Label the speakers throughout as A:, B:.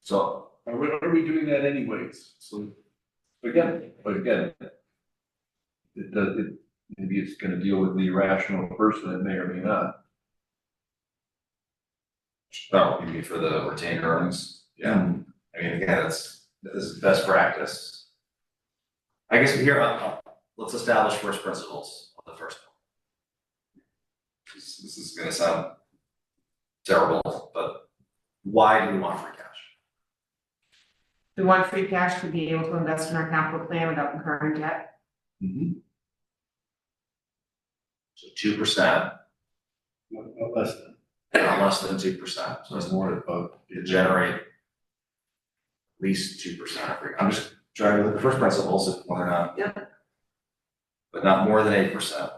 A: So,
B: Are we, are we doing that anyways? So,
A: again, but again. It does, it, maybe it's gonna deal with the irrational person, it may or may not.
C: Oh, you mean for the retained earnings?
A: Yeah.
C: I mean, again, that's, this is best practice. I guess here, uh, uh, let's establish first principles on the first one. This, this is gonna sound terrible, but why do we want free cash?
D: We want free cash to be able to invest in our capital plan without incurring debt.
C: So two percent,
B: no- no less than.
C: less than two percent, so it's
A: more about.
C: to generate at least two percent of free, I'm just trying to look at the first principles, if whether or not. But not more than eight percent.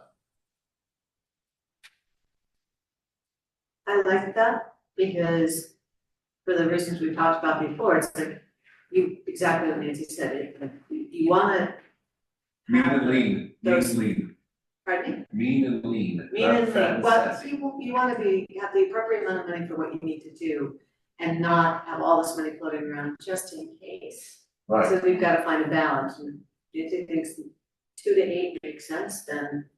E: I like that because for the reasons we talked about before, it's like you, exactly what Nancy said, it- you wanna,
A: Mean and lean, mean and lean,
E: pardon
A: mean and lean.
E: me? Mean
A: not
E: and
A: fat and
E: lean, well,
A: sassy.
E: you, you wanna be, have the appropriate amount of money for what you need to do and not have all this money floating around just in case.
A: Right,
E: So we've gotta find a balance, and if it thinks two to eight makes sense, then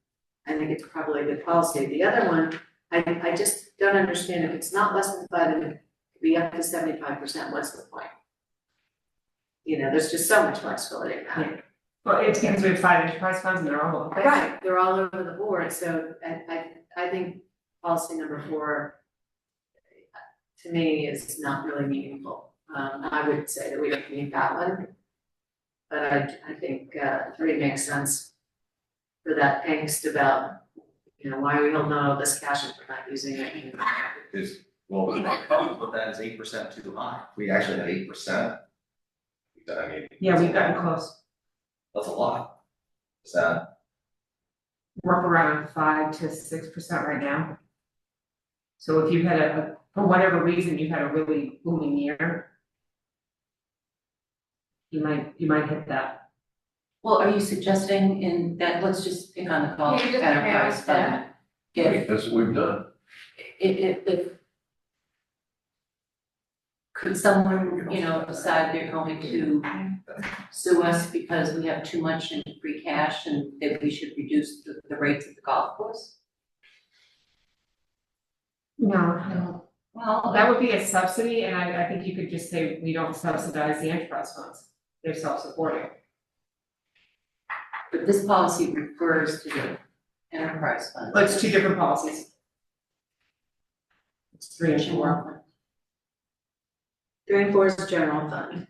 E: I think it's probably a good policy. The other one, I, I just don't understand, if it's not less than five, and it could be up to seventy-five percent, what's the point? You know, there's just so much flexibility in that.
D: Well, it's because we have five enterprise funds and they're all over the place.
E: Right, they're all over the board, so I, I, I think policy number four to me is not really meaningful. Um, I would say that we don't need that one. But I, I think, uh, three makes sense for that angst about, you know, why we don't know this cash if we're not using it. you know.
C: is, well, we probably put that as eight percent too high. We actually had eight percent. I mean.
D: Yeah, we've gotten close,
C: That's a lot. Is that,
D: we're up around five to six percent right now. So if you had a, a- for whatever reason, you had a really booming year. You might, you might hit that.
F: Well, are you suggesting in that, let's just pick on the call
G: Yeah, you just
F: enterprise
G: narrow it down.
F: fund? If,
A: right, that's what we've done.
F: if, if, if. Could someone, you know, decide they're going to sue us because we have too much in free cash and that we should reduce the, the rates of the golf course?
D: No,
F: Well,
D: that would be a subsidy and I, I think you could just say, we don't subsidize the enterprise funds, they're self-supporting.
F: but this policy refers to the enterprise fund.
D: But it's two different policies. It's three and four,
E: Three and four is general fund,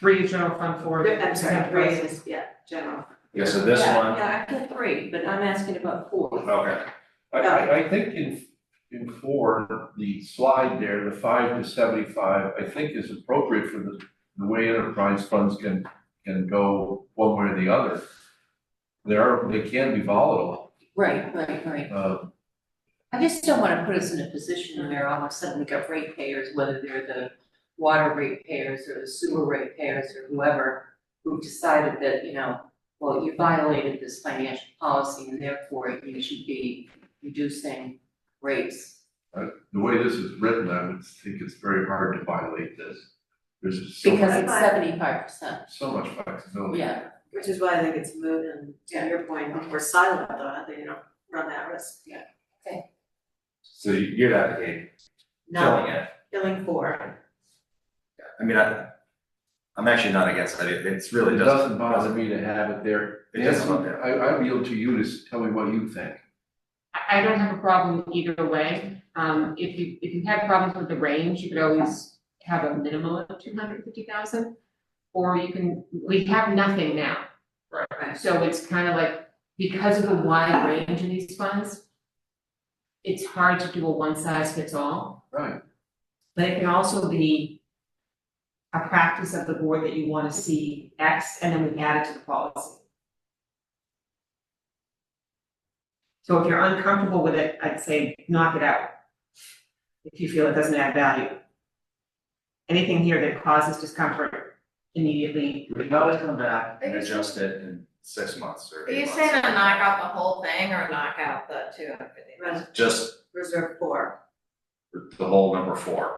D: three is general fund, four is
E: I'm sorry, three
D: enterprise.
E: is, yeah, general.
C: yeah, so this
F: Yeah,
C: one, Oh.
F: Yeah, I feel three, but I'm asking about four.
C: okay,
B: I, I, I think in, in four, the slide there, the five to seventy-five, I think is appropriate for the, the way enterprise funds can, can go one way or the other. They are, they can be volatile,
F: Right, right, right.
B: uh,
F: I just don't wanna put us in a position where all of a sudden we got ratepayers, whether they're the water ratepayers or the sewer ratepayers or whoever, who decided that, you know, well, you violated this financial policy and therefore you should be reducing rates.
B: the way this is written, I would think it's very hard to violate this. There's so
F: Because
B: much,
F: it's seventy-five percent,
B: so much flexibility.
F: yeah,
E: Which is why I think it's moot and to your point, if we're silent on it, then you don't run that risk.
C: so you- you'd advocate
E: No,
C: killing it,
E: killing four.
C: I mean, I. I'm actually not against it, It- it's really
B: It
C: just.
B: doesn't bother me to have it there.
C: It doesn't
B: Nancy,
C: bother
B: I, I yield to you to s- tell me what you think.
D: I, I don't have a problem either way, um, if you, if you had problems with the range, you could always have a minimum of two hundred fifty thousand. Or you can, we have nothing now.
C: Right.
D: So it's kind of like, because of the wide range in these funds, it's hard to do a one size fits all.
B: Right.
D: But it can also be a practice of the board that you wanna see X and then we add it to the policy. So if you're uncomfortable with it, I'd say knock it out. If you feel it doesn't add value. Anything here that causes discomfort immediately,
C: We can always come back and adjust it in six months or
G: Are
C: eight
G: you
C: months.
G: saying to knock out the whole thing or knock out the two hundred fifty?
E: Res-
C: Just
E: Reserve four.
C: the whole number four.